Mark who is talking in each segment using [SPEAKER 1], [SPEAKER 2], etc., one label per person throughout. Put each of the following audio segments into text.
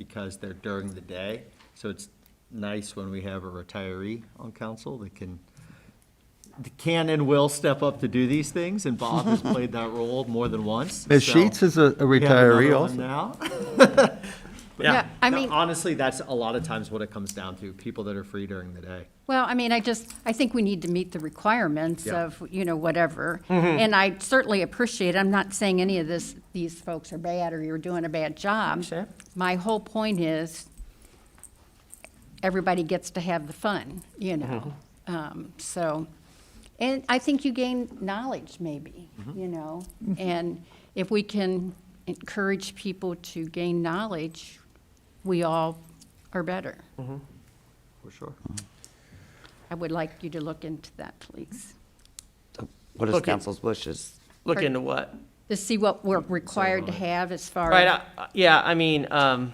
[SPEAKER 1] because they're during the day. So it's nice when we have a retiree on council that can, that can and will step up to do these things, and Bob has played that role more than once.
[SPEAKER 2] Ms.
[SPEAKER 1] so
[SPEAKER 2] Sheets is a a
[SPEAKER 1] we have another
[SPEAKER 2] retiree
[SPEAKER 1] one
[SPEAKER 2] also.
[SPEAKER 1] Now.
[SPEAKER 3] Yeah, I mean,
[SPEAKER 1] Honestly, that's a lot of times what it comes down to, people that are free during the day.
[SPEAKER 3] well, I mean, I just, I think we need to meet the requirements
[SPEAKER 1] Yeah.
[SPEAKER 3] of, you know, whatever. And I certainly appreciate, I'm not saying any of this, these folks are bad or you're doing a bad job.
[SPEAKER 1] Sure.
[SPEAKER 3] My whole point is, everybody gets to have the fun, you know?
[SPEAKER 1] Mm-hmm.
[SPEAKER 3] Um, So, and I think you gain knowledge, maybe,
[SPEAKER 1] Mm-hmm.
[SPEAKER 3] you know? And if we can encourage people to gain knowledge, we all are better.
[SPEAKER 1] Mm-hmm. For sure.
[SPEAKER 3] I would like you to look into that, please,
[SPEAKER 4] What is
[SPEAKER 5] Look, it-
[SPEAKER 4] council's wishes?
[SPEAKER 5] Look
[SPEAKER 3] Pardon?
[SPEAKER 5] into what?
[SPEAKER 3] to see what we're
[SPEAKER 1] Mm-hmm.
[SPEAKER 3] required to have as far
[SPEAKER 5] Right,
[SPEAKER 3] as.
[SPEAKER 5] I- I- yeah, I mean, um,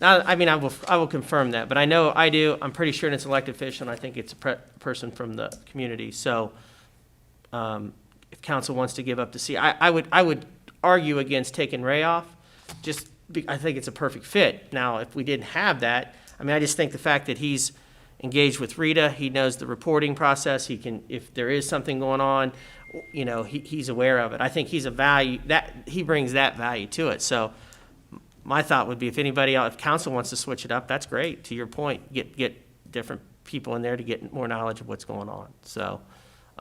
[SPEAKER 5] I, I mean, I will, I will confirm that, but I know I do, I'm pretty sure it's an elected official, and I think it's a pre- person from the community, so, um, if council wants to give up the seat, I, I would, I would argue against taking Ray off, just, be- I think it's a perfect fit. Now, if we didn't have that, I mean, I just think the fact that he's engaged with Rita, he knows the reporting process, he can, if there is something going on, you know, he, he's aware of it. I think he's a value, that, he brings that value to it, so my thought would be if anybody, else- if council wants to switch it up, that's great, to your point, get, get different people in there to get more knowledge of what's going on, so.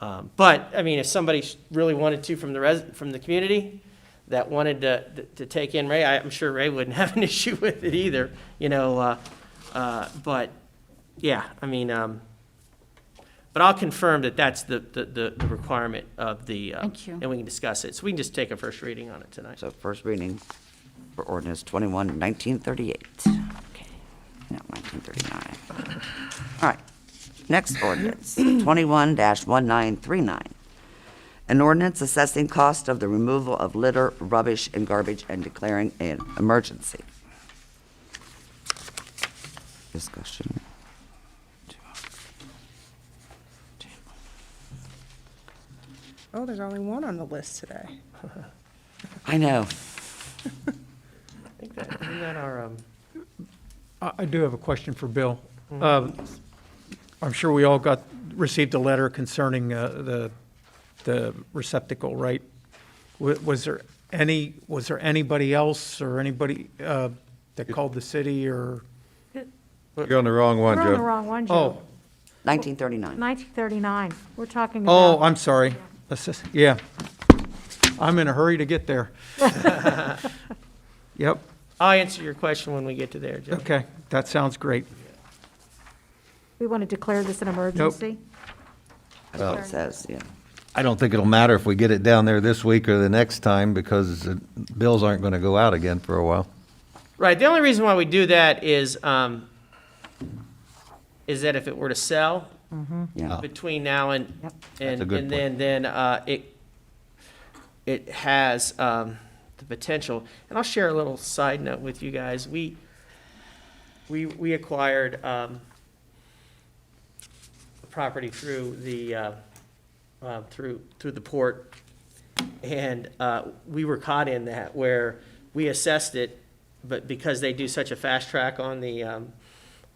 [SPEAKER 5] Um, but, I mean, if somebody sh- really wanted to from the res, from the community that wanted to, to take in Ray, I- I'm sure Ray wouldn't have an issue with it either, you know, uh, uh, but, yeah, I mean, um, but I'll confirm that that's the, the, the the requirement of the, uh,
[SPEAKER 3] Thank you.
[SPEAKER 5] and we can discuss it, so we can just take a first reading on it tonight.
[SPEAKER 4] So first reading for ordinance 21, 1938. No, 1939. All right. Next ordinance, 21-1939. An ordinance assessing cost of the removal of litter, rubbish, and garbage and declaring an emergency. Discussion.
[SPEAKER 6] Oh, there's only one on the list today.
[SPEAKER 4] I know.
[SPEAKER 5] I think that, isn't that our, um,
[SPEAKER 7] I I do have a question for Bill. Uh, I'm sure we all got, received a letter concerning uh, the, the receptacle, right? Wa- Was there any, was there anybody else or anybody uh, that called the city or?
[SPEAKER 2] You're on the wrong one,
[SPEAKER 8] We're on the
[SPEAKER 2] Joe.
[SPEAKER 8] wrong one,
[SPEAKER 7] Oh,
[SPEAKER 8] Joe.
[SPEAKER 4] 1939.
[SPEAKER 8] 1939, we're talking about.
[SPEAKER 7] oh, I'm sorry. This is- Yeah. I'm in a hurry to get there. Yep,
[SPEAKER 5] I'll answer your question when we get to there, Joe.
[SPEAKER 7] okay, that sounds great.
[SPEAKER 8] We want to declare this an emergency?
[SPEAKER 4] That's what it says, yeah.
[SPEAKER 2] I don't think it'll matter if we get it down there this week or the next time because the bills aren't going to go out again for a while.
[SPEAKER 5] Right, the only reason why we do that is, um, is that if it were to sell
[SPEAKER 4] Yeah.
[SPEAKER 5] between now and,
[SPEAKER 8] Yep.
[SPEAKER 2] a
[SPEAKER 5] and,
[SPEAKER 2] good
[SPEAKER 5] and then, then, uh, it, it has, um, the potential. And I'll share a little side note with you guys. We, we, we acquired, um, property through the, uh, uh, through, through the port. And uh, we were caught in that where we assessed it, but because they do such a fast track on the, um,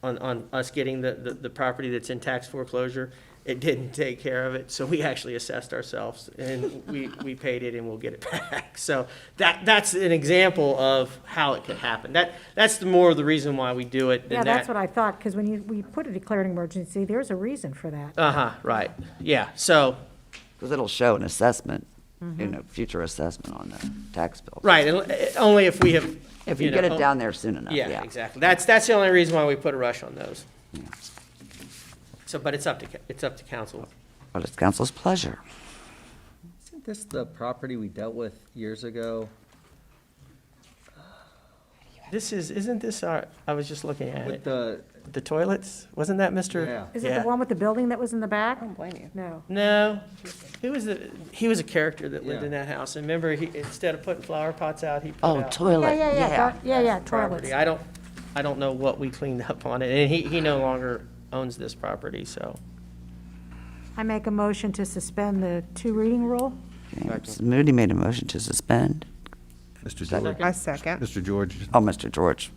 [SPEAKER 5] on, on us getting the, the, the property that's in tax foreclosure, it didn't take care of it. So we actually assessed ourselves and we, we paid it and we'll get it back. So that, that's an example of how it could happen. That, that's the more of the reason why we do it than
[SPEAKER 8] Yeah,
[SPEAKER 5] that.
[SPEAKER 8] that's what I thought, because when you, we put a declared emergency, there's a reason for that.
[SPEAKER 5] Uh-huh, right. Yeah, so,
[SPEAKER 4] Because it'll show an assessment, you know, future assessment on the tax bill.
[SPEAKER 5] right, and, uh, only if we have.
[SPEAKER 4] If you get
[SPEAKER 5] know, oh,
[SPEAKER 4] it down there soon enough, yeah.
[SPEAKER 5] Yeah, exactly. That's, that's the only reason why we put a rush on those. So, but it's up to, ca- it's up to council.
[SPEAKER 4] But it's council's pleasure.
[SPEAKER 1] Isn't this the property we dealt with years ago
[SPEAKER 5] This is, isn't this our, I was just looking at
[SPEAKER 1] with
[SPEAKER 5] it,
[SPEAKER 1] the,
[SPEAKER 5] the toilets? Wasn't that Mr.?
[SPEAKER 1] Yeah.
[SPEAKER 8] Is it
[SPEAKER 5] Yeah.
[SPEAKER 8] the one with the building that was in the back?
[SPEAKER 6] I don't blame you.
[SPEAKER 8] No.
[SPEAKER 5] No, he was, a- he was a character that lived
[SPEAKER 1] Yeah.
[SPEAKER 5] in that house. And remember, he, instead of putting flower pots out, he put
[SPEAKER 4] Oh,
[SPEAKER 5] out
[SPEAKER 4] toilet,
[SPEAKER 8] Yeah, yeah, yeah,
[SPEAKER 4] yeah.
[SPEAKER 8] gar- yeah, yeah, toilets.
[SPEAKER 5] property. I don't, I don't know what we cleaned up on it. And he, he no longer owns this property, so.
[SPEAKER 8] I make a motion to suspend the two reading rule.
[SPEAKER 4] Okay, Ms. Moody made a motion to suspend.
[SPEAKER 2] Mr. George,
[SPEAKER 6] I second.
[SPEAKER 2] Mr. George
[SPEAKER 4] Oh, Mr. George.